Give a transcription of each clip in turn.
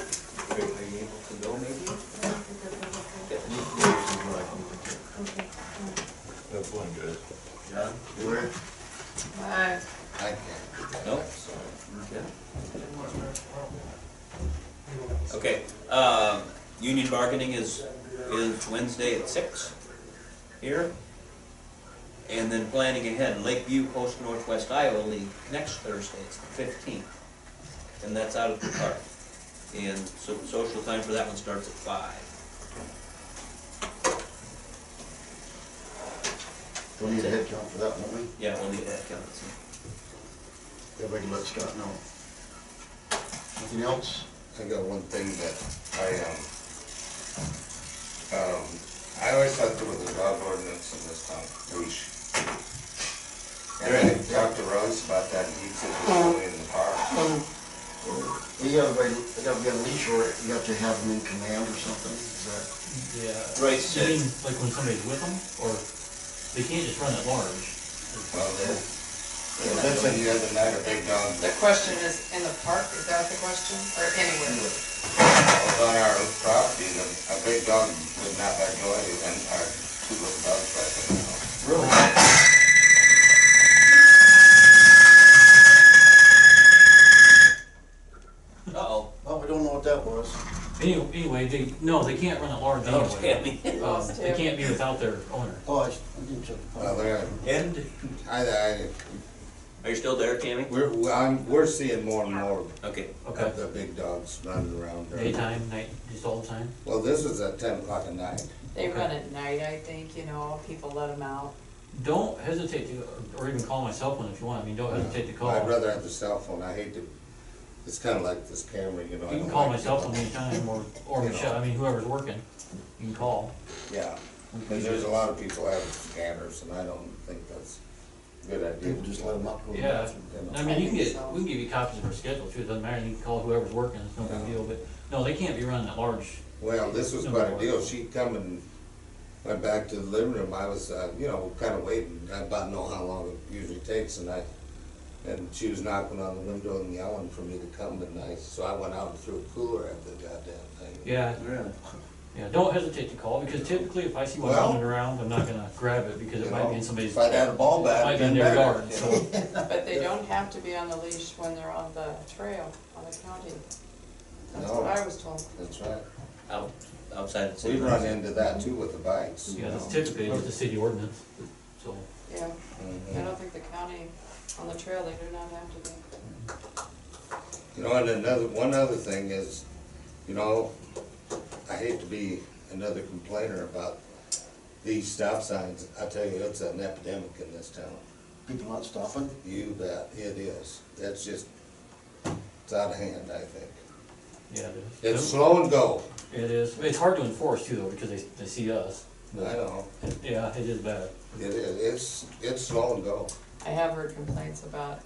Are you able to go maybe? That's one good. John? Where? Aye. I can't. No? Sorry. Yeah? Okay, um, union bargaining is, is Wednesday at six here. And then planning ahead, Lakeview Coast Northwest Iowa League next Thursday, it's the fifteenth. And that's out at the park. And so social time for that one starts at five. We'll need a head count for that, won't we? Yeah, we'll leave that counts. Everybody let Scott know. Nothing else? I got one thing that I, um, um, I always thought there was a dog ordinance in this town, leash. And I talked to Russ about that, and he said it's only in the park. You gotta wait, you gotta get a leash or you have to have them in command or something, is Yeah. Right, so- You mean, like when somebody's with them, or they can't just run at large? Well, then, that's like the other night, a big dog, The question is, in the park, is that the question, or anywhere? was on our property, and a big dog would not let go of it, and our two little dogs right there now. Really? Uh-oh, that? Oh, we don't know what that was. Anyway, anyway, they, no, they can't run at large Oh, that was anyway. Tammy. Um, They can't be without their owner. Oh, I s- I didn't check the Well, file. there, And, I, I, are you still there, Tammy? we're, I'm, we're seeing more and more Okay, Okay. of the big dogs running around. there. Daytime, night, just all the time? Well, this is at ten o'clock at night. They run at night, I think, you know, people let them out. Don't hesitate to, or even call my cell phone if you want, I mean, don't hesitate to call. I'd rather have the cell phone, I hate to, it's kinda like this camera, you know. I You can don't call like my cell phone people- anytime, or, or You know. Michelle, I mean, whoever's working, you can call. Yeah, and there's a lot of people have scanners, and I don't think that's a good idea. People just let them up. go to the Yeah. bathroom. You know. I mean, you can I think get, so. we can give you copies of our schedule too, it doesn't matter, you can call whoever's working, it's no big Yeah. deal, but, no, they can't be running at large. Well, this was quite a deal, she come and went back to the living room, I was, uh, you know, kinda waiting, I about know how long it usually takes, and I, and she was knocking on the window and yelling for me to come, and I, so I went out and threw a cooler at the goddamn thing. Yeah, really? yeah, don't hesitate to call, because typically if I see one Well- running around, I'm not gonna grab it, because You it might know, be in somebody's, If I'd had a ball bat, might be in then their better, yard, you so. know. But they don't have to be on the leash when they're on the trail, on the county. That's No. what I was told. That's right. Out, outside the city We run limits. into that too with the bikes. you Yeah, that's know. typically just a city ordinance, so, Yeah, I Mhm. don't think the county, on the trail, they do not have to be. You know, and another, one other thing is, you know, I hate to be another complainer about these stop signs. I tell you, it's an epidemic in this town. People not stopping? You bet, it is. That's just, it's out of hand, I think. yeah, it It's is. slow and go. It is, it's hard to enforce too, though, because they, they see us, I know, yeah, it is bad. it is, it's, it's slow and go. I have heard complaints about,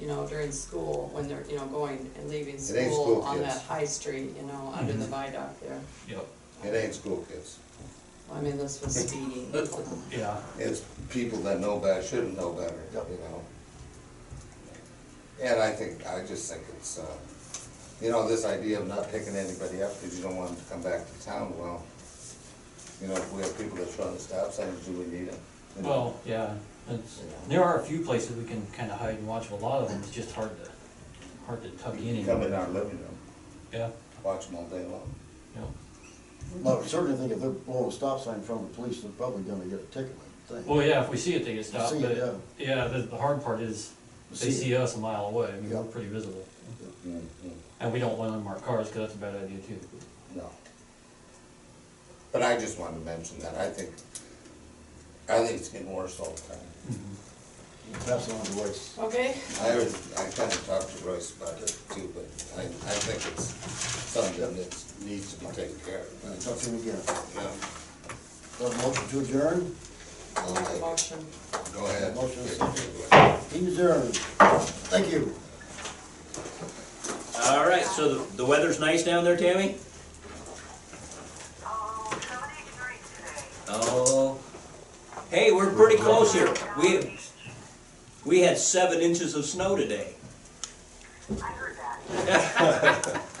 you know, during school, when they're, you know, going and leaving It ain't school school on kids. Mm-hmm. that high street, you know, under the viaduct there. Yep. It ain't school kids. I mean, this was speeding. so. Yeah, It's people that know better, shouldn't know better, Yep. you know? And I think, I just think it's, uh, you know, this idea of not picking anybody up because you don't want them to come back to town, well, you know, if we have people that's running stop signs, do we need them? You know? well, yeah, it's, there are a few places we can kinda hide and watch, but a lot of them, it's just hard to, hard to tuck in You and, Come in our living room, yeah, watch them all day long. yeah. Well, I certainly think if they're blowing a stop sign in front of the police, they're probably gonna get a ticket, I would think. Well, yeah, if we see it, they get stopped, See it, but, yeah, the, the hard part is, they See it. see us a mile away, I mean, we're Yeah. pretty visible. Mm, mm. And we don't want unmarked cars, cause that's a bad idea too. No. But I just wanted to mention that, I think, I think it's getting worse all the time. Pass it on to Royce. Okay, I, I kind of talked to Royce about it too, but I, I think it's something that needs to be taken care I'll of. talk to him again. Yeah, Got a motion to adjourn? I'll I'll make a take it. motion. Go ahead. Motion is Go He adjourned. Thank you. All right, so the, the weather's nice down there, Tammy? Oh, 70 degrees today. Oh, hey, we're pretty close here. We, we had seven inches of snow today. I heard that.